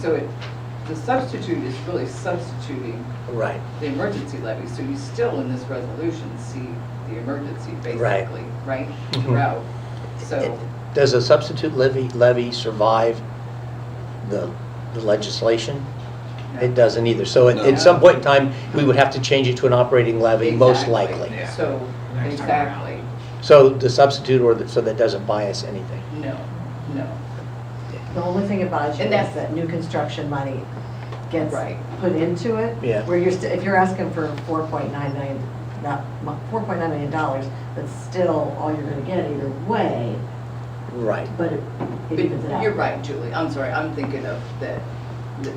so it, the substitute is really substituting Right, the emergency levy, so you still in this resolution see the emergency Right. basically, right? Mhm. Throughout, so, It- Does a substitute levy, levy survive the the legislation? It yeah. doesn't either. So at, No. at some point in time, we would have to change it to an operating levy, most Exactly. likely. Yeah. So, Next time around. exactly, So the substitute or, the- so that doesn't buy us anything. no, no, The only thing about you is And that's- that new construction money gets Right. put into it. Yeah. Where you're, sti- if you're asking for four point nine million, not, four point nine million dollars, that's still all you're gonna get either way, Right. but it it but evens it out. you're right, Julie, I'm sorry, I'm thinking of that. that-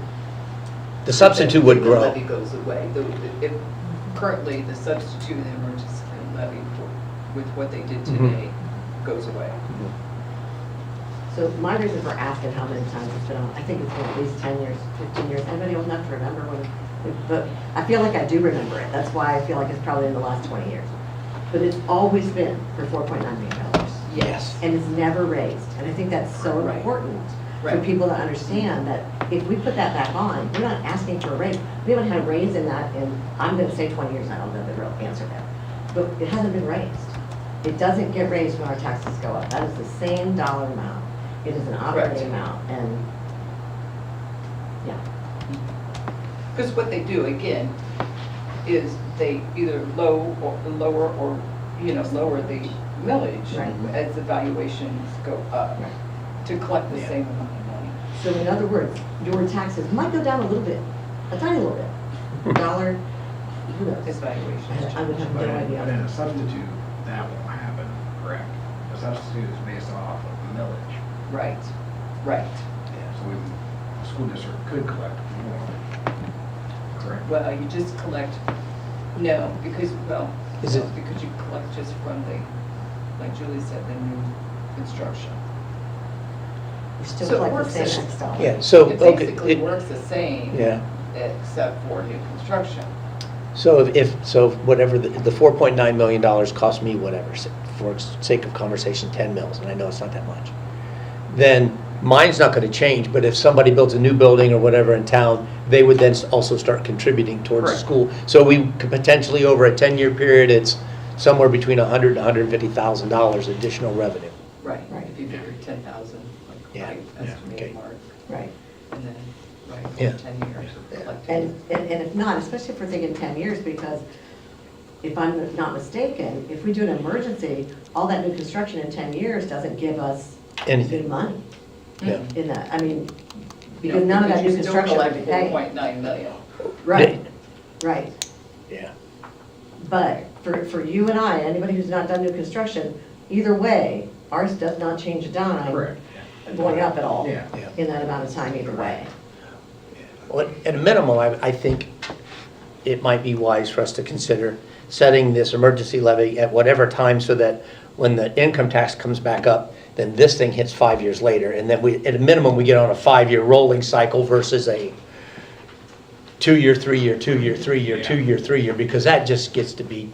The substitute that would The levy grow. goes away, The- the- if, currently, the substitute and emergency levy for, with what they did Mhm. today goes away. So my reason for asking how many times it's been on, I think it's been at least ten years, fifteen years, anybody old enough to remember when, but I feel like I do remember it, that's why I feel like it's probably in the last twenty years. But it's always been for four point nine million dollars. Yes. and it's never raised. And I think that's so Right. important for Right. people to understand that if we put that back on, we're not asking for a raise. We haven't had a raise in that in, I'm gonna say twenty years, I don't know the real answer there. But it hasn't been raised. It doesn't get raised when our taxes go up. That is the same dollar amount. It is an Correct. operating amount and, yeah. Because what they do, again, is they either low or, lower or, you know, lower the millage Right. as the valuations go up Right. to collect the Yeah. same amount of money. So in other words, your taxes might go down a little bit, a tiny little bit, a dollar, who knows? His valuations. I would have no But in, idea. but in a substitute, that won't happen, correct? A substitute is based off of millage. Right, right. So we, the school district could collect more, correct? Well, uh, you just collect, no, because, well, Is it- no, because you collect just from the, like Julie said, the new construction. We still So it collect the works as- same X dollar. Yeah, so, It okay. basically it- works the same. Yeah. Except for new construction. So if- if, so whatever, the the $4.9 million cost me whatever, s- for sake of conversation, 10 mils, and I know it's not that much, then mine's not going to change, but if somebody builds a new building or whatever in town, they would then s- also start contributing towards the Correct. school. So we could potentially, over a 10-year period, it's somewhere between 100 and $150,000 additional revenue. Right, Right. if you figure ten thousand, like, Yeah, right, yeah, okay. estimated mark, Right. and then, right, Yeah. for ten years of Yeah. And, collecting. and and if not, especially if we're thinking 10 years, because if I'm not mistaken, if we do an emergency, all that new construction in 10 years doesn't give us Anything. good money Yeah. in that, I mean, You because know, none of that you new still construction would collect pay. 4.9 million. Right, right. Yeah. But for, for you and I, anybody who's not done new construction, either way, ours does not change a dime Correct. going up at all Yeah. Yeah. in that amount of time either way. Well, At a minimum, I, I think it might be wise for us to consider setting this emergency levy at whatever time so that when the income tax comes back up, then this thing hits five years later. And then we, at a minimum, we get on a five-year rolling cycle versus a two-year, three-year, two-year, three-year, Yeah. two-year, three-year, because that just gets to be,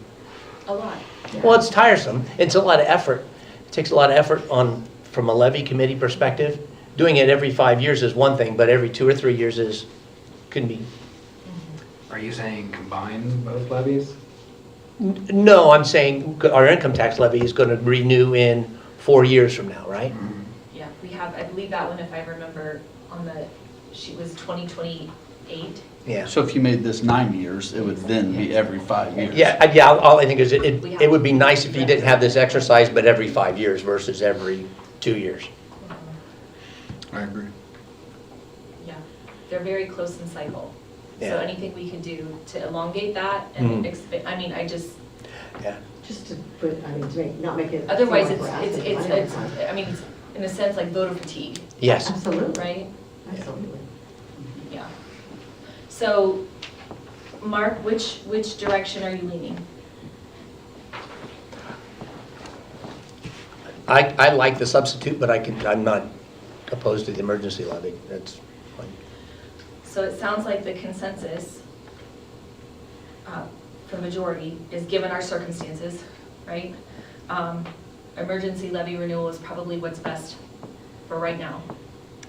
A lot. well, it's tiresome. It's a lot of effort. It takes a lot of effort on, from a levy committee perspective. Doing it every five years is one thing, but every two or three years is, can be Are you saying combine both levies? N- No, I'm saying our income tax levy is going to renew in four years from now, right? Mm-hmm. Yeah, we have, I believe that one, if I remember, on the, she was 2028. Yeah. So if you made this nine years, it would then be every five years? Yeah, I- yeah, all I think is it, it it would be nice if you didn't have this exercise, but every five years versus every two years. I agree. Yeah, they're very close in cycle. So Yeah. anything we can do to elongate that Mhm. and expand, I mean, I just, Yeah. Just to put, I mean, to make, not make it. seem otherwise like it's, we're it's, asking it's, for money all it's, the time. I mean, it's in a sense like voter fatigue, Yes. Absolutely. right? Absolutely. Yeah. So, Mark, which, which direction are you leaning? I, I like the substitute, but I can, I'm not opposed to the emergency levy. That's fine. So it sounds like the consensus uh, for majority is given our circumstances, right? Um, Emergency levy renewal is probably what's best for right now.